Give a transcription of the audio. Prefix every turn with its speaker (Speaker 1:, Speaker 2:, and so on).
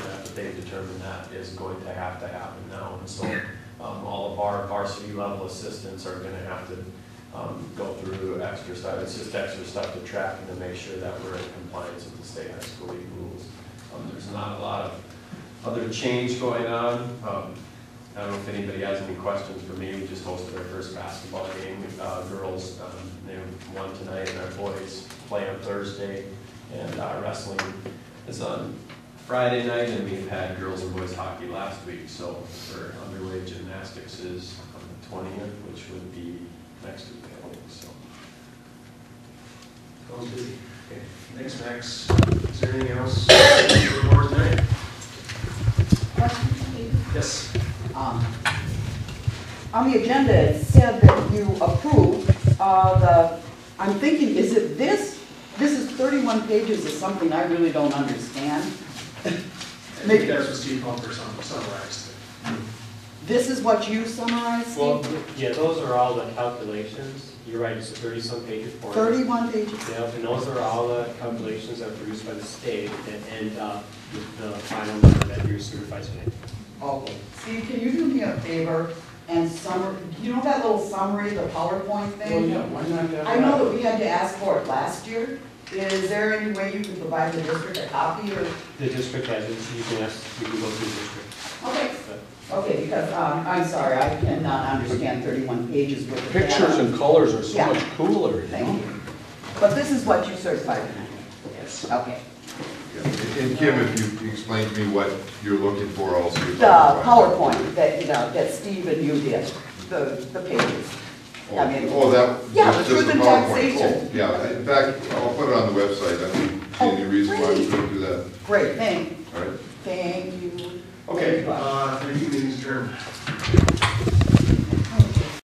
Speaker 1: but they've determined that is going to have to happen now. And so um, all of our varsity level assistants are gonna have to um, go through extra stuff. It's just extra stuff to track and to make sure that we're in compliance with the state high school league rules. Um, There's not a lot of other change going on. Um, I don't know if anybody has any questions for me. We just hosted our first basketball game. Uh, Girls, um, they won tonight, and our boys play on Thursday. And uh, wrestling is on Friday night, and we've had girls and boys hockey last week. So for underway gymnastics is on the twentieth, which would be next week, I think, so.
Speaker 2: Sounds good. Okay, Thanks, Max. Is there anything else for the board tonight?
Speaker 3: Question, please.
Speaker 2: Yes.
Speaker 3: Um, On the agenda, it said that you approve uh, the, I'm thinking, is it this? This is 31 pages of something I really don't understand.
Speaker 2: I think that's what Steve Bumper sum- summarized.
Speaker 3: This is what you summarized?
Speaker 4: Well,
Speaker 3: Steve?
Speaker 4: yeah, those are all the calculations. You're right, it's a thirty-some page report.
Speaker 3: 31 pages.
Speaker 4: Yeah, and those are all the calculations that are produced by the state that end up with the final number that your supervisor made.
Speaker 3: Okay. Steve, can you do me a favor and summar, you know that little summary, the PowerPoint thing?
Speaker 5: why not have
Speaker 3: I know that we had to ask for it last year. Is there any way you can provide the district a copy or?
Speaker 4: The district has it, so you can ask, you can go through the district.
Speaker 3: Okay.
Speaker 4: but-
Speaker 3: Okay, because, um, I'm sorry, I cannot understand thirty-one pages worth of data.
Speaker 5: Pictures and colors are so
Speaker 3: Yeah.
Speaker 5: much cooler, you
Speaker 3: Thank
Speaker 5: know?
Speaker 3: you. But this is what you certified tonight?
Speaker 2: Yes.
Speaker 3: Okay.
Speaker 6: Yeah, And Kim, if you explain to me what you're looking for also. you'd
Speaker 3: The
Speaker 6: like to-
Speaker 3: PowerPoint that, you know, that Steve and you did, the, the pages. I mean,
Speaker 6: Oh, that.
Speaker 3: Yeah,
Speaker 6: just-
Speaker 3: the
Speaker 6: just
Speaker 3: truth in
Speaker 6: PowerPoint. Oh,
Speaker 3: taxation.
Speaker 6: Yeah, in fact, I'll put it on the website, I don't see any
Speaker 3: Oh,
Speaker 6: reason why we
Speaker 3: great.
Speaker 6: shouldn't do that,
Speaker 3: Great, thank,
Speaker 6: all right?
Speaker 3: thank you.
Speaker 2: Okay,
Speaker 3: Thank you.
Speaker 2: uh, review